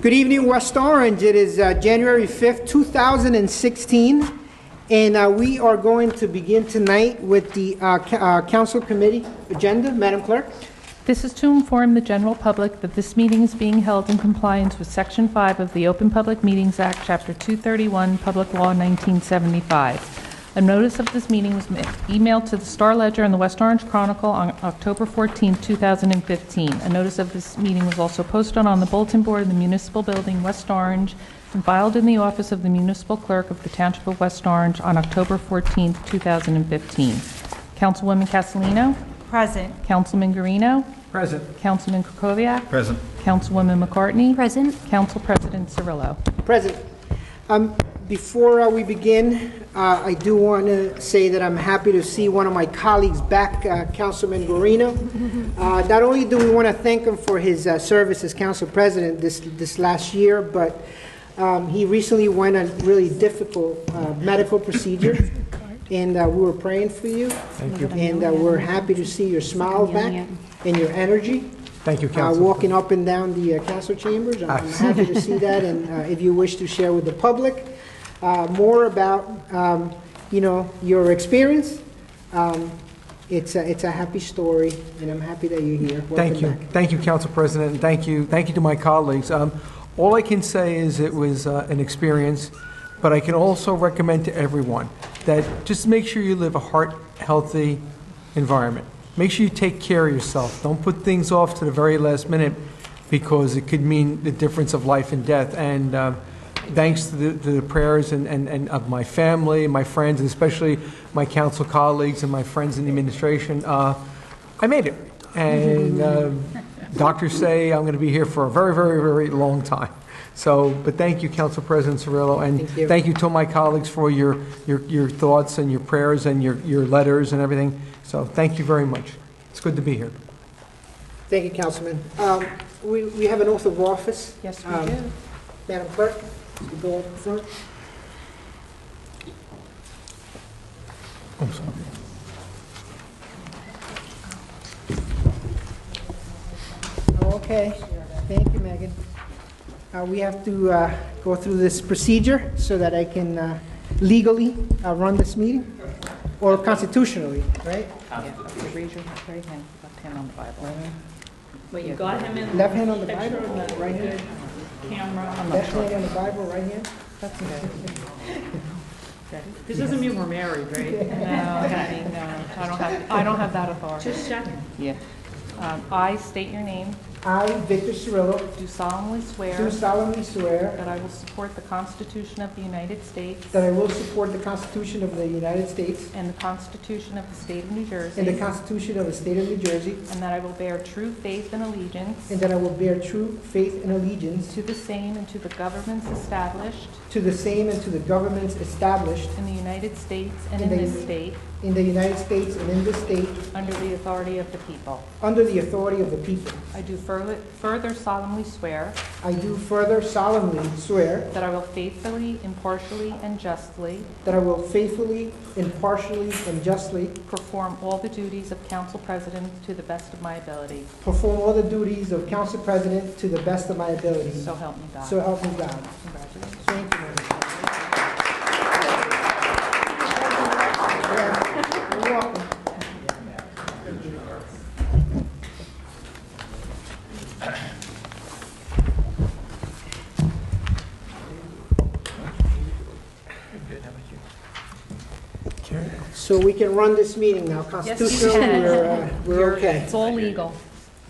Good evening, West Orange. It is uh, January 5th, 2016, and uh, we are going to begin tonight with the uh, ca- uh, council committee agenda. Madam Clerk? This is to inform the general public that this meeting is being held in compliance with Section 5 of the Open Public Meetings Act, Chapter 231, Public Law 1975. A notice of this meeting was ma- emailed to the Star Ledger and the West Orange Chronicle on October 14, 2015. A notice of this meeting was also posted on the bulletin board in the municipal building, West Orange, and filed in the office of the municipal clerk of the Township of West Orange on October 14, 2015. Councilwoman Castellino? Present. Councilman Guarino? Present. Councilman Kukoviac? Present. Councilwoman McCartney? Present. Council President Cirillo. Present. Um, Before uh, we begin, uh, I do want to say that I'm happy to see one of my colleagues back, uh, Councilman Guarino. Uh, Not only do we want to thank him for his uh, service as council president this, this last year, but um, he recently went on really difficult uh, medical procedure, and uh, we were praying for you. Thank you. And uh, we're happy to see your smile back and your energy. Thank you, Ah. Uh, Council. Walking up and down the uh, council chambers. I'm I'm happy to see that, and uh, if you wish to share with the public uh, more about, um, you know, your experience, um, it's a, it's a happy story, and I'm happy that you're here. Thank Welcome you. back. Thank you, Council President, and thank you, thank you to my colleagues. Um, All I can say is it was uh, an experience, but I can also recommend to everyone that just make sure you live a heart-healthy environment. Make sure you take care of yourself. Don't put things off to the very last minute because it could mean the difference of life and death. And um, thanks to the, to the prayers and, and, and of my family, my friends, and especially my council colleagues and my friends in the administration, uh, I made it. And uh, doctors say I'm going to be here for a very, very, very long time. So, but thank you, Council President Cirillo, and Thank you. thank you to my colleagues for your, your, your thoughts and your prayers and your, your letters and everything. So thank you very much. It's good to be here. Thank you, Councilman. Um, We, we have an oath of office. Yes, Um, Madam Clerk, you go up front. Okay, thank you, Megan. Uh, We have to uh, go through this procedure so that I can uh, legally uh, run this meeting, or constitutionally, right? Raise your right hand, left hand on the Bible. Well, you got him in Left hand on the Bible, right hand? camera. Left hand on the Bible, right hand? This doesn't mean we're married, right? No, honey, no, I don't have, I don't have that authority. Just checking. Yeah. Um, I state your name, I, Victor Cirillo, do solemnly do swear solemnly swear that I will support the Constitution of the United States that I will support the Constitution of the United States and the Constitution of the State of New Jersey, and the Constitution of the State of New Jersey, and that I will bear true faith and allegiance and that I will bear true faith and allegiance to the same and to the governments established to the same and to the governments established in the United States and In in the- this state, in the United States and in this state, under the authority of the people. under the authority of the people. I do further further solemnly swear I do further solemnly swear that I will faithfully, impartially, and justly that I will faithfully, impartially, and justly perform all the duties of council president to the best of my ability. perform all the duties of council president to the best of my ability. So help me God. So help me God. Congratulations. Thank you. You're welcome. So we can run this meeting now. Constitutionally, uh, we're, uh, we're okay. It's all legal.